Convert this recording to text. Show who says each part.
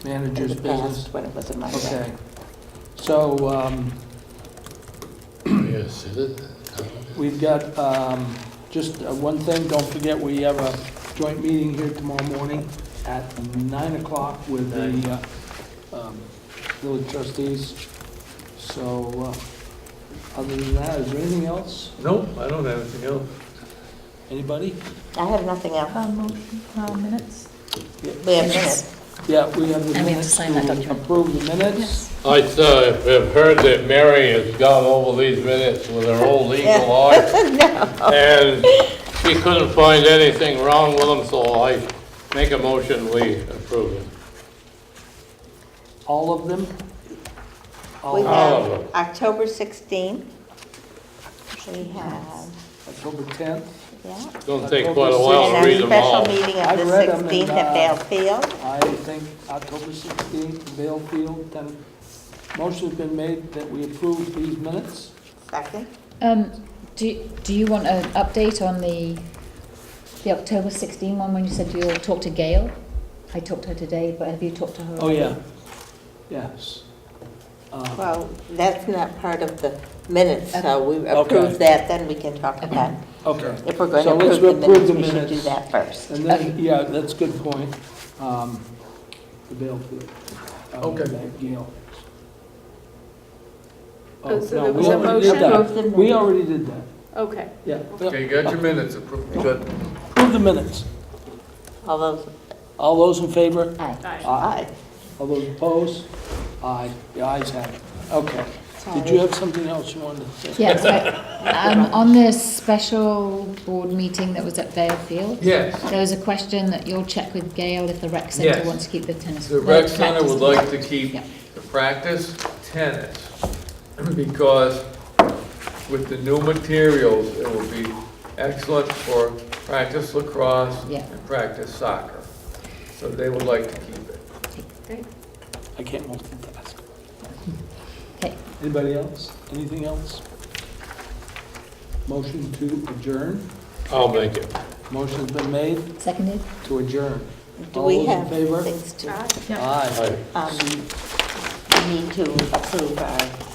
Speaker 1: in
Speaker 2: Manager's
Speaker 1: the
Speaker 2: business.
Speaker 1: past when it wasn't my
Speaker 2: Okay.
Speaker 1: day.
Speaker 2: So um,
Speaker 3: Yes, it is.
Speaker 2: we've got um, just uh, one thing, don't forget, we have a joint meeting here tomorrow morning at 9 o'clock with the uh, um, village trustees. So uh, other than that, is there anything else?
Speaker 3: Nope, I don't have anything else.
Speaker 2: Anybody?
Speaker 1: I have nothing else.
Speaker 4: Uh, Motion, uh, minutes?
Speaker 1: We have minutes.
Speaker 2: Yeah, we have
Speaker 4: And we have
Speaker 2: the
Speaker 4: to
Speaker 2: minutes
Speaker 4: sign that
Speaker 2: to
Speaker 4: document.
Speaker 2: approve the minutes.
Speaker 3: I uh, have heard that Mary has gone over these minutes with her old eagle eye. And she couldn't find anything wrong with them, so I make a motion, we approve them.
Speaker 2: All of them? All
Speaker 1: We
Speaker 2: of
Speaker 3: All
Speaker 1: have
Speaker 3: of them.
Speaker 1: October 16th. We have,
Speaker 2: October 10th?
Speaker 1: yeah.
Speaker 3: It's gonna take quite a while to
Speaker 1: And
Speaker 3: read
Speaker 1: our
Speaker 3: them
Speaker 1: special
Speaker 3: all.
Speaker 1: meeting of
Speaker 2: I've
Speaker 1: the
Speaker 2: read 'em and,
Speaker 1: 16th at
Speaker 2: uh,
Speaker 1: Vale Field.
Speaker 2: I think October 16th, Vale Field, 10. Motion's been made that we approve these minutes.
Speaker 1: Second.
Speaker 5: Um, do, do you want an update on the, the October 16 one when you said you'll talk to Gail? I talked to her today, but have you talked to her?
Speaker 2: Oh, yeah, yes. Uh,
Speaker 1: Well, that's not part of the minutes, so we
Speaker 2: Okay.
Speaker 1: approve that, then we can talk about,
Speaker 2: Okay,
Speaker 1: if we're going to
Speaker 2: So let's
Speaker 1: approve the
Speaker 2: approve
Speaker 1: minutes,
Speaker 2: the
Speaker 1: we should do
Speaker 2: minutes.
Speaker 1: that first.
Speaker 2: and then, yeah, that's a good point, um, the Vale Field. um,
Speaker 3: Okay.
Speaker 2: that Gail.
Speaker 6: Oh, so there
Speaker 2: we
Speaker 6: was a
Speaker 2: already
Speaker 6: motion?
Speaker 2: did that.
Speaker 1: Approve the
Speaker 2: We
Speaker 1: minutes.
Speaker 2: already did that,
Speaker 6: Okay.
Speaker 2: yeah.
Speaker 3: you got your minutes approved. Good.
Speaker 2: Approve the minutes.
Speaker 1: All those,
Speaker 2: All those in favor?
Speaker 5: Aye.
Speaker 6: Aye.
Speaker 2: Aye. All those opposed? Aye, the ayes have it. Okay. Did
Speaker 1: sorry.
Speaker 2: you have something else you wanted to say?
Speaker 5: Yes, I- um, on the special board meeting that was at Vale Field,
Speaker 3: Yes,
Speaker 5: there was a question that you'll check with Gail if the rec centre
Speaker 3: Yes.
Speaker 5: wants to keep the tennis.
Speaker 3: the
Speaker 5: no,
Speaker 3: rec center
Speaker 5: practice.
Speaker 3: would like to keep
Speaker 5: Yeah.
Speaker 3: the practice tennis because with the new materials, it will be excellent for practice lacrosse
Speaker 5: Yeah.
Speaker 3: and practice soccer. So they would like to keep it.
Speaker 2: I can't multitask.
Speaker 5: Okay.
Speaker 2: Anybody else? Anything else? Motion to adjourn.
Speaker 3: I'll make it.
Speaker 2: Motion's been made
Speaker 5: Seconded?
Speaker 2: to adjourn.
Speaker 1: Do
Speaker 2: All
Speaker 1: we
Speaker 2: those in
Speaker 1: have
Speaker 2: favor?
Speaker 1: things to,
Speaker 6: Aye.
Speaker 2: Aye.
Speaker 1: um, we need to approve our